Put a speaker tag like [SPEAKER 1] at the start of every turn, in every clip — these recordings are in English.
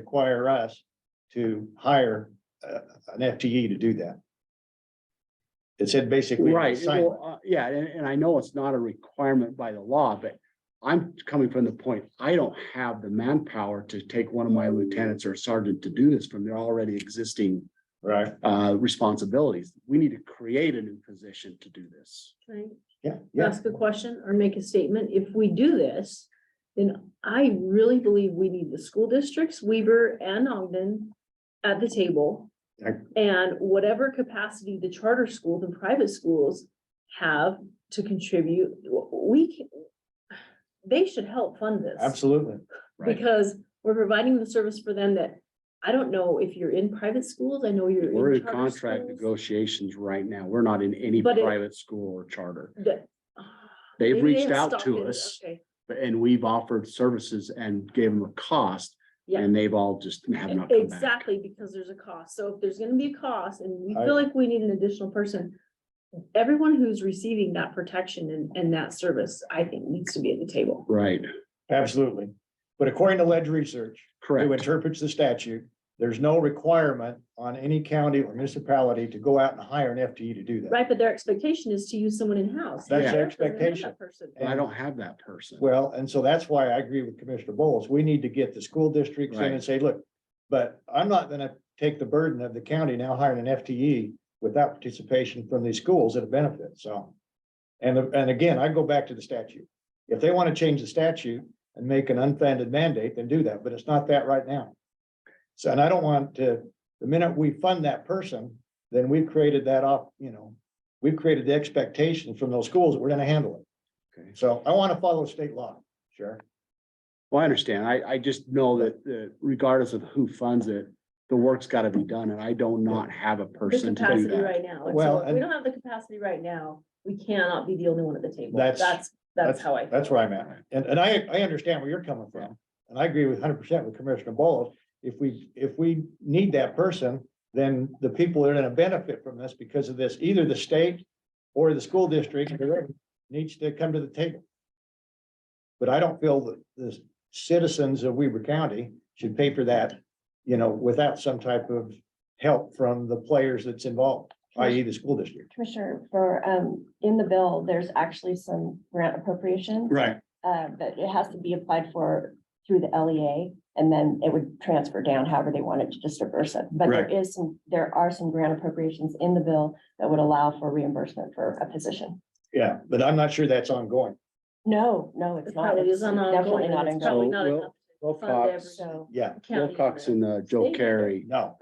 [SPEAKER 1] require us to hire uh, an FTE to do that. It said basically.
[SPEAKER 2] Right,
[SPEAKER 1] assignment.
[SPEAKER 2] well, uh, yeah, and, and I know it's not a requirement by the law, but I'm coming from the point, I don't have the manpower to take one of my lieutenants or sergeant to do this from their already existing
[SPEAKER 1] Right,
[SPEAKER 2] uh, responsibilities. We need to create a new position to do this.
[SPEAKER 3] Can
[SPEAKER 1] yeah,
[SPEAKER 3] I
[SPEAKER 1] yeah,
[SPEAKER 3] ask a question or make a statement? If we do this, then I really believe we need the school districts, Weaver and Ogden at the table.
[SPEAKER 1] I-
[SPEAKER 3] And whatever capacity the charter schools and private schools have to contribute, w- we can, they should help fund this.
[SPEAKER 1] absolutely.
[SPEAKER 2] Right,
[SPEAKER 3] Because we're providing the service for them that, I don't know if you're in private schools, I know you're in.
[SPEAKER 2] we're in
[SPEAKER 3] charter
[SPEAKER 2] contract
[SPEAKER 3] schools,
[SPEAKER 2] negotiations right now. We're not in any
[SPEAKER 3] But it-
[SPEAKER 2] private school or charter.
[SPEAKER 3] that-
[SPEAKER 2] They've
[SPEAKER 3] Maybe they
[SPEAKER 2] reached
[SPEAKER 3] have
[SPEAKER 2] out
[SPEAKER 3] stopped
[SPEAKER 2] to
[SPEAKER 3] it.
[SPEAKER 2] us
[SPEAKER 3] Okay.
[SPEAKER 2] and we've offered services and gave them a cost.
[SPEAKER 3] Yeah.
[SPEAKER 2] And they've all just have not come back.
[SPEAKER 3] Exactly, because there's a cost. So if there's gonna be a cost and we
[SPEAKER 1] I-
[SPEAKER 3] feel like we need an additional person. Everyone who's receiving that protection and, and that service, I think needs to be at the table.
[SPEAKER 2] Right,
[SPEAKER 1] Absolutely. But according to Ledge Research, who
[SPEAKER 2] correct.
[SPEAKER 1] interprets the statute, there's no requirement on any county or municipality to go out and hire an FTE to do that.
[SPEAKER 3] Right, but their expectation is to use someone in-house.
[SPEAKER 1] That's their
[SPEAKER 3] They're gonna have that
[SPEAKER 1] expectation.
[SPEAKER 3] person.
[SPEAKER 2] But I don't have that person.
[SPEAKER 1] Well, and so that's why I agree with Commissioner Bowles. We need to get the school districts in and
[SPEAKER 2] Right.
[SPEAKER 1] say, look, but I'm not gonna take the burden of the county now hiring an FTE without participation from these schools at a benefit, so. And, and again, I go back to the statute. If they want to change the statute and make an unfunded mandate, then do that, but it's not that right now. So, and I don't want to, the minute we fund that person, then we've created that off, you know, we've created the expectation from those schools that we're gonna handle it.
[SPEAKER 2] Okay.
[SPEAKER 1] So I want to follow state law, sure.
[SPEAKER 2] Well, I understand. I, I just know that, that regardless of who funds it, the work's gotta be done, and I don't not have a
[SPEAKER 3] The
[SPEAKER 2] person to do
[SPEAKER 3] capacity
[SPEAKER 2] that.
[SPEAKER 3] right now. And
[SPEAKER 1] Well,
[SPEAKER 3] so if we
[SPEAKER 1] and-
[SPEAKER 3] don't have the capacity right now, we cannot be the only one at the table.
[SPEAKER 1] That's-
[SPEAKER 3] That's, that's how I.
[SPEAKER 1] That's where I'm at. And, and I, I understand where you're coming from. And I agree with hundred percent with Commissioner Bowles. If we, if we need that person, then the people that are going to benefit from this because of this, either the state or the school district needs to come to the table. But I don't feel that the citizens of Weber County should pay for that, you know, without some type of help from the players that's involved, i.e. the school district.
[SPEAKER 4] Commissioner, for, um, in the bill, there's actually some grant appropriation,
[SPEAKER 2] Right.
[SPEAKER 4] uh, but it has to be applied for through the LEA. And then it would transfer down however they want it to just disperse it. But there
[SPEAKER 2] Right.
[SPEAKER 4] is some, there are some grant appropriations in the bill that would allow for reimbursement for a position.
[SPEAKER 1] Yeah, but I'm not sure that's ongoing.
[SPEAKER 4] No, no, it's
[SPEAKER 3] It's
[SPEAKER 4] not.
[SPEAKER 3] probably
[SPEAKER 4] It's
[SPEAKER 3] is on
[SPEAKER 4] Definitely
[SPEAKER 3] ongoing.
[SPEAKER 4] not
[SPEAKER 3] It's probably
[SPEAKER 4] ongoing.
[SPEAKER 3] not
[SPEAKER 2] So,
[SPEAKER 3] enough Fund
[SPEAKER 2] Wilcox,
[SPEAKER 4] So,
[SPEAKER 1] Yeah,
[SPEAKER 3] to county
[SPEAKER 2] Wilcox
[SPEAKER 3] either.
[SPEAKER 2] and uh, Joe Carey,
[SPEAKER 1] no.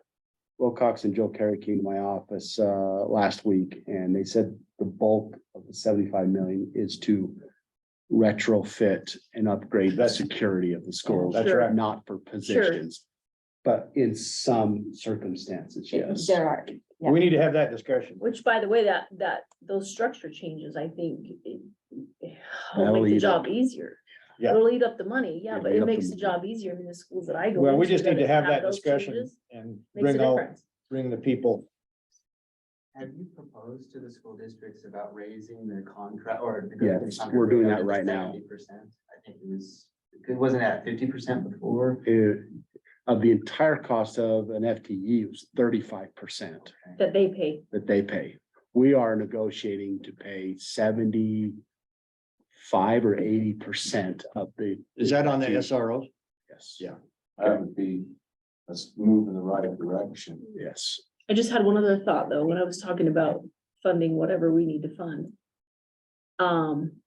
[SPEAKER 2] Wilcox and Joe Carey came to my office, uh, last week, and they said the bulk of the seventy-five million is to retrofit and upgrade the
[SPEAKER 1] That's- Oh,
[SPEAKER 2] security of the schools,
[SPEAKER 1] That's right.
[SPEAKER 2] not for positions. But in some circumstances, yes.
[SPEAKER 4] there are, Yeah.
[SPEAKER 1] We need to have that discussion.
[SPEAKER 3] Which, by the way, that, that, those structure changes, I think, it- it-
[SPEAKER 2] That'll
[SPEAKER 3] will make the
[SPEAKER 2] eat up.
[SPEAKER 3] job easier.
[SPEAKER 1] Yeah.
[SPEAKER 3] It'll eat up the money, yeah,
[SPEAKER 2] It'll
[SPEAKER 3] but
[SPEAKER 2] eat
[SPEAKER 3] it
[SPEAKER 2] up the
[SPEAKER 3] makes the
[SPEAKER 2] money.
[SPEAKER 3] job easier in the schools that I go.
[SPEAKER 1] Well, we
[SPEAKER 3] into,
[SPEAKER 1] just need to
[SPEAKER 3] doesn't
[SPEAKER 1] have that
[SPEAKER 3] those
[SPEAKER 1] discussion
[SPEAKER 3] changes.
[SPEAKER 1] and
[SPEAKER 3] Makes a
[SPEAKER 1] bring all,
[SPEAKER 3] difference.
[SPEAKER 1] bring the people.
[SPEAKER 5] Have you proposed to the school districts about raising their contract or?
[SPEAKER 2] Yes, we're doing that right now.
[SPEAKER 5] Fifty percent, I think it was, it wasn't at fifty percent before.
[SPEAKER 2] it- uh, of the entire cost of an FTE it was thirty-five percent
[SPEAKER 5] Okay.
[SPEAKER 3] That they pay,
[SPEAKER 2] that they pay. We are negotiating to pay seventy-five or eighty percent of the. E.
[SPEAKER 1] Is that on the SROs?
[SPEAKER 2] Yes.
[SPEAKER 1] Yeah.
[SPEAKER 6] That would be, let's move in the right direction.
[SPEAKER 2] Yes.
[SPEAKER 3] I just had one other thought, though, when I was talking about funding whatever we need to fund. Um.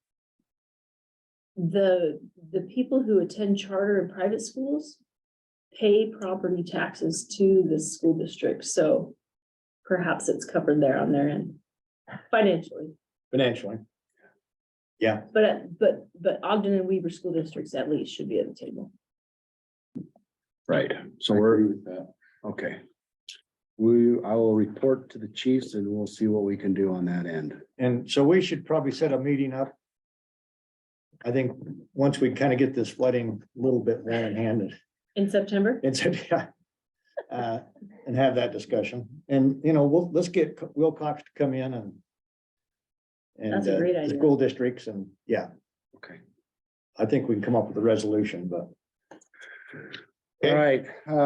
[SPEAKER 3] The, the people who attend charter and private schools pay property taxes to the school district, so. Perhaps it's covered there on their end financially.
[SPEAKER 1] Financially,
[SPEAKER 3] But, but, but Ogden and Weaver school districts at least should be at the table.
[SPEAKER 2] Right. So
[SPEAKER 6] I
[SPEAKER 2] we're, uh,
[SPEAKER 6] agree with that.
[SPEAKER 2] okay. We, I will report to the chiefs and we'll see what we can do on that end.
[SPEAKER 1] and so we should probably set a meeting up. I think once we kind of get this flooding a little bit more in hand,
[SPEAKER 3] In September?
[SPEAKER 1] and so, yeah. Uh, and have that discussion, and, you know, we'll, let's get Wilcox to come in and. And
[SPEAKER 3] That's a
[SPEAKER 1] uh,
[SPEAKER 3] great
[SPEAKER 1] the
[SPEAKER 3] idea.
[SPEAKER 1] school districts, and, yeah,
[SPEAKER 2] Okay.
[SPEAKER 1] I think we can come up with a resolution, but
[SPEAKER 2] All right, uh,